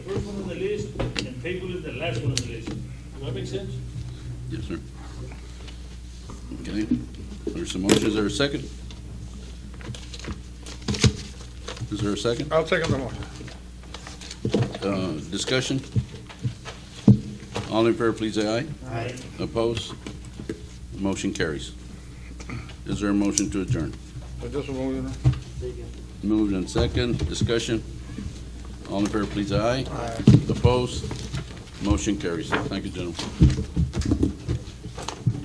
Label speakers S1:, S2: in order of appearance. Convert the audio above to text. S1: first one on the list and table is the last one on the list. Does that make sense?
S2: Yes, sir. Okay, there's some motions, is there a second? Is there a second?
S3: I'll second the motion.
S2: Uh, discussion? All in favor, please say aye.
S1: Aye.
S2: Opposed? Motion carries. Is there a motion to adjourn?
S3: So just a moment.
S2: Moved and second, discussion? All in favor, please say aye. Aye. Opposed? Motion carries. Thank you, gentlemen.